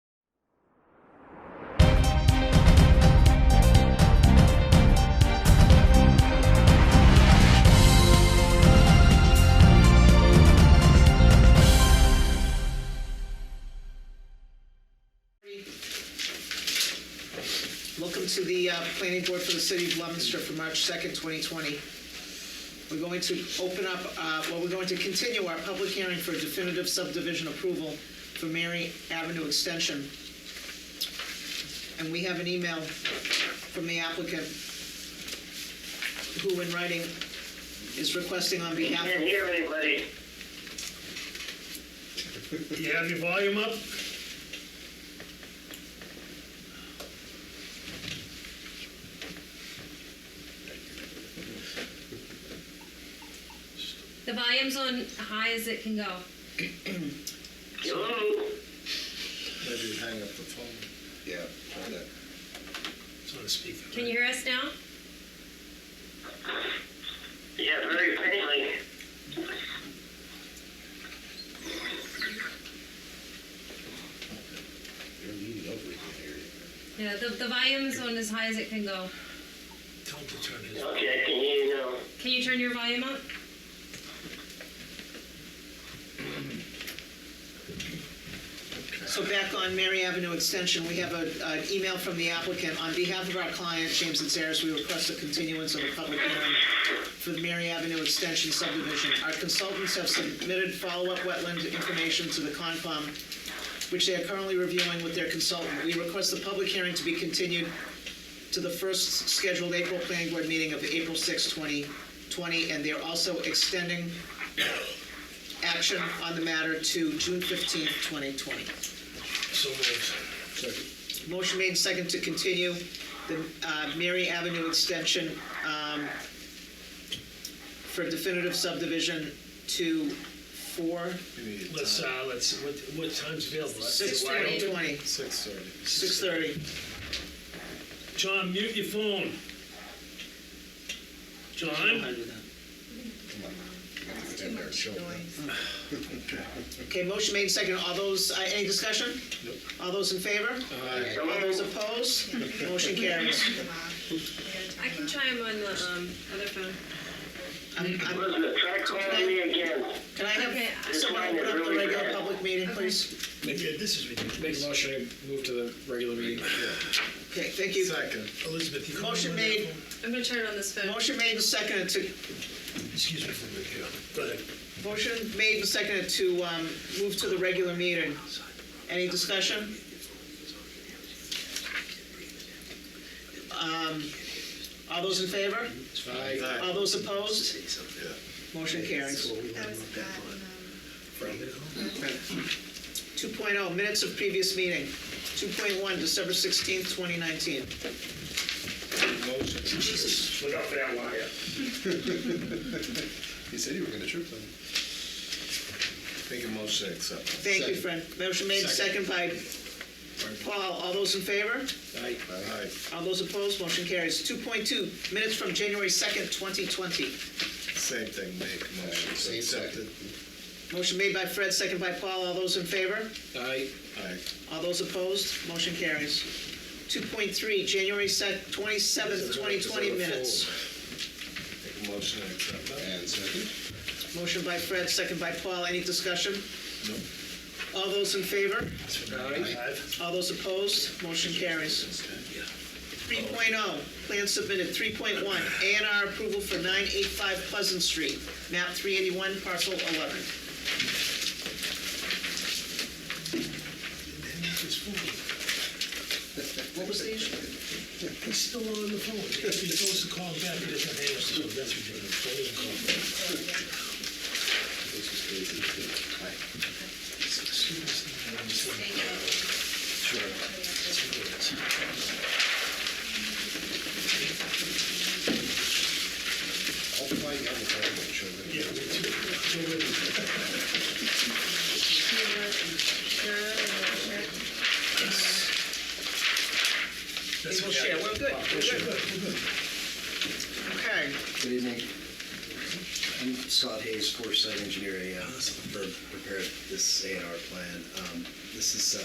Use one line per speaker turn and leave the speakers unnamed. Welcome to the uh, Planning Board for the City of Leominster for March 2nd, 2020. We're going to open up, uh, well, we're going to continue our public hearing for definitive subdivision approval for Mary Avenue Extension. And we have an email from the applicant who in writing is requesting on behalf
Can't
of...
hear anybody.
You have your volume up?
The volume's on high as it can go.
Hello?
Maybe you hang up the phone. Yeah, try that.
It's on speaker.
Can you hear us now?
Yeah, very faintly.
You're leaning over, you can hear you.
Yeah, the, the volume's on as high as it can go.
Tell him to turn his.
Okay, I can hear you now.
Can you turn your volume up?
So back on Mary Avenue Extension, we have a- an email from the applicant. On behalf of our client, James and Sarahs, we request a continuance of a public hearing for the Mary Avenue Extension subdivision. Our consultants have submitted follow-up wetland information to the Concom, which they are currently reviewing with their consultant. We request the public hearing to be continued to the first scheduled April Planning Board meeting of April 6, 2020, and they're also extending action on the matter to June 15, 2020.
So moved.
Motion made and second to continue the uh, Mary Avenue extension um, for definitive subdivision to four,
Let's, uh, let's, what, what time's available? That's a
six
wide open-
twenty,
Six thirty.
six thirty.
John, mute your phone. John?
Okay, motion made and second. All those, uh, any discussion? All those in favor? All those opposed? Motion carries.
I can try him on the um, other phone.
I'm- I'm-
Elizabeth, try calling me again.
Can I
Okay, I-
have someone open up the regular public meeting, please?
Yeah, This is ridiculous.
Make a motion to move to the regular meeting.
Okay, thank you.
Second.
Elizabeth, you can.
Motion
run that
made.
phone?
I'm gonna turn it on this phone.
Motion made and second to
Excuse me for a minute, yeah. Go ahead.
Motion made and seconded to um, move to the regular meeting. Any discussion? Um, All those in favor?
Aye.
All those opposed? Motion carries.
That was at, um,
2.0, oh, minutes of previous meeting. 2.1, December 16th, 2019.
Motion.
Look out for that wire.
He said you were gonna trip them. Making motion to accept.
Thank you, Fred. Motion made and seconded by Paul. All those in favor?
Aye. Aye.
All those opposed? Motion carries. 2.2, minutes from January 2nd, 2020.
Same thing, make motion to accept it.
Motion made by Fred, second by Paul. All those in favor?
Aye.
Aye.
All those opposed? Motion carries. 2.3, January sec- 27th, 2020 minutes.
Make a motion to accept that. And second.
Motion by Fred, second by Paul. Any discussion? All those in favor?
Five.
All those opposed? Motion carries. 3.0, plan submitted. 3.1, A and R approval for 985 Pleasant Street, map 381, parcel 11.
And that's his phone.
What was the issue?
He's still on the phone. If he goes to call back, he doesn't hang up, so that's ridiculous. Don't even call back. Excuse me, I'm just-
I'll play on the phone, children.
Yeah, me too. So wait.
We will share. We're good. We're good. Okay.
Good evening. I'm Scott Hayes, Forest Site Engineer, AM, for prepared this A and R plan. Um, This is uh,